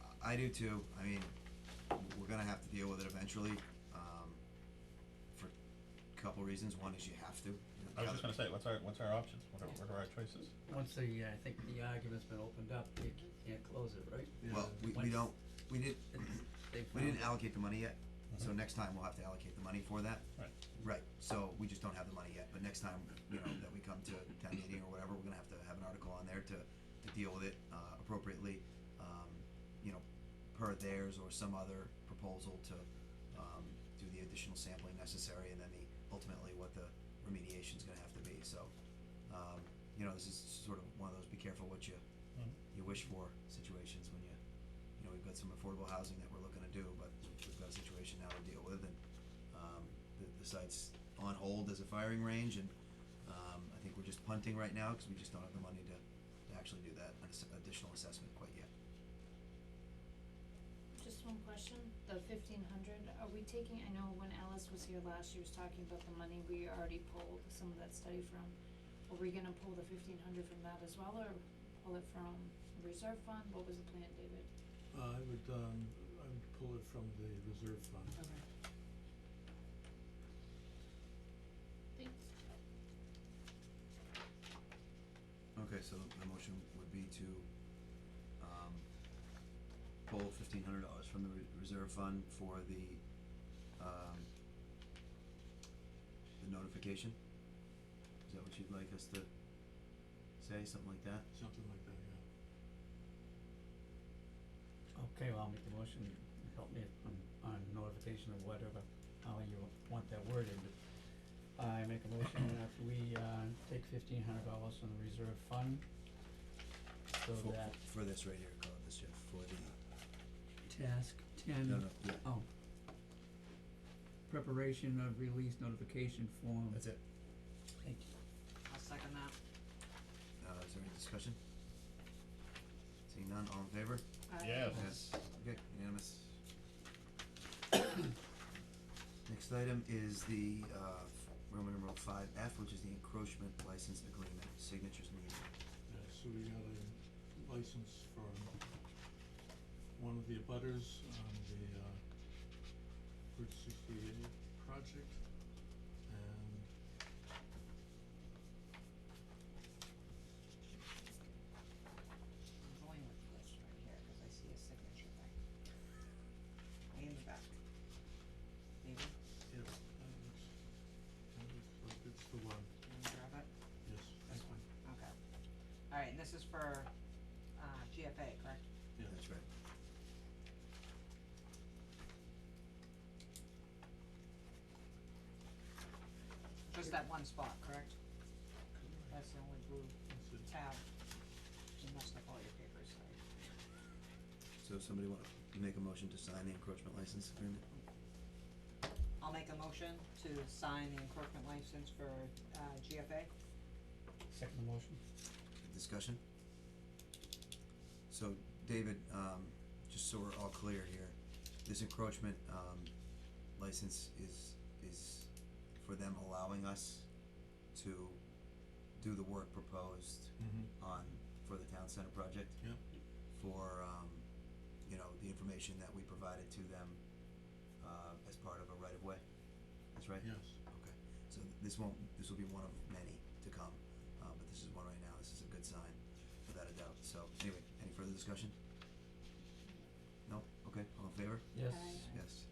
uh, I do too, I mean, w- we're gonna have to deal with it eventually, um, for a couple reasons, one is you have to. you know, the I was other- just gonna say, what's our, what's our options, what are, what are our choices? Once the, uh, I think the argument's been opened up, you c- can't close it, right? Well, we, we Once don't, we did, it's- they we found, didn't allocate the money yet, so next time we'll have to allocate the money for that. Right. Right, so we just don't have the money yet, but next time, you know, that we come to town meeting or whatever, we're gonna have to have an article on there to, to deal with it, uh, appropriately. Um, you know, per theirs or some other proposal to, um, do the additional sampling necessary and then the, ultimately what the remediation's gonna have to be, so. Um, you know, this is sort of one of those be careful what you, Mhm. you wish for situations when you, you know, we've got some affordable housing that we're looking to do, but we've got a situation now to deal with and, um, the, the site's on hold as a firing range and, um, I think we're just punting right now because we just don't have the money to, to actually do that, an ass- additional assessment quite yet. Just one question, the fifteen hundred, are we taking, I know when Alice was here last, she was talking about the money we already pulled some of that study from. Are we gonna pull the fifteen hundred from that as well, or pull it from reserve fund, what was the plan, David? Uh, I would, um, I would pull it from the reserve fund. Okay. Thanks. Okay, so the motion would be to, um, pull fifteen hundred dollars from the re- reserve fund for the, um, the notification? Is that what you'd like us to say, something like that? Something like that, yeah. okay, well, I'll make the motion, help me on, on notification or whatever, how you want that worded, but I make a motion that we, uh, take fifteen hundred dollars from the reserve fund, so For- that For this right here, call it this, Jeff, for the, task ten no, no, yeah, Oh. Preparation of release notification form. that's it. Thank you. I'll second that. Uh, is there any discussion? Seeing none, all in favor? Aye. Yes. Yes, okay, unanimous. Next item is the uh Roman numeral five F, which is the encroachment license agreement, signatures needed. Yeah, so we got a license for one of the abutters on the, uh, Route sixty-eight project, and I'm going with this right here, cause I see a signature thing. Way in the back. David, yeah, that looks, that looks like it's the one, can you grab it? yes. This one, okay. Alright, and this is for, uh, GFA, correct? Yeah. That's right. Just that one spot, correct? Correct. That's the only blue That's it. tab. You must have all your papers, sorry. So if somebody wanna make a motion to sign the encroachment license agreement? I'll make a motion to sign the encroachment license for, uh, GFA. Second motion. Discussion? So David, um just so we're all clear here, this encroachment um license is is for them allowing us to do the work proposed Mhm. on for the town center project. Yeah. For um, you know, the information that we provided to them uh as part of a right of way. That's right? Yes, Okay. So th- this won't this will be one of many to come. Uh but this is one right now. This is a good sign, without a doubt. So anyway, any further discussion? No? Okay, all in favor? Yes. Aye. Yes.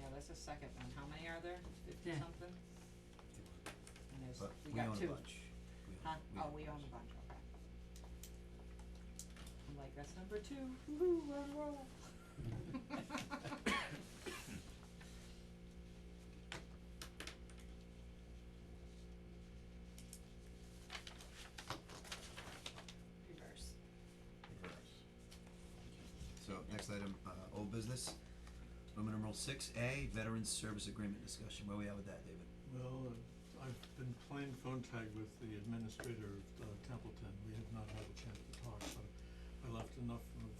Yeah, that's the second one. How many are there? Fifty Yeah. something? And there's, But we we own got a two. bunch. We Huh? own- Oh, we own a bunch, okay. I'm like, that's number two, woo-hoo, we're on a roll. Reverse. Reverse. So next item, uh old business. Roman numeral six A, Veterans Service Agreement discussion. Where we at with that, David? well, uh, I've been playing phone tag with the administrator of uh, Templeton, we have not had a chance to talk, but I left enough of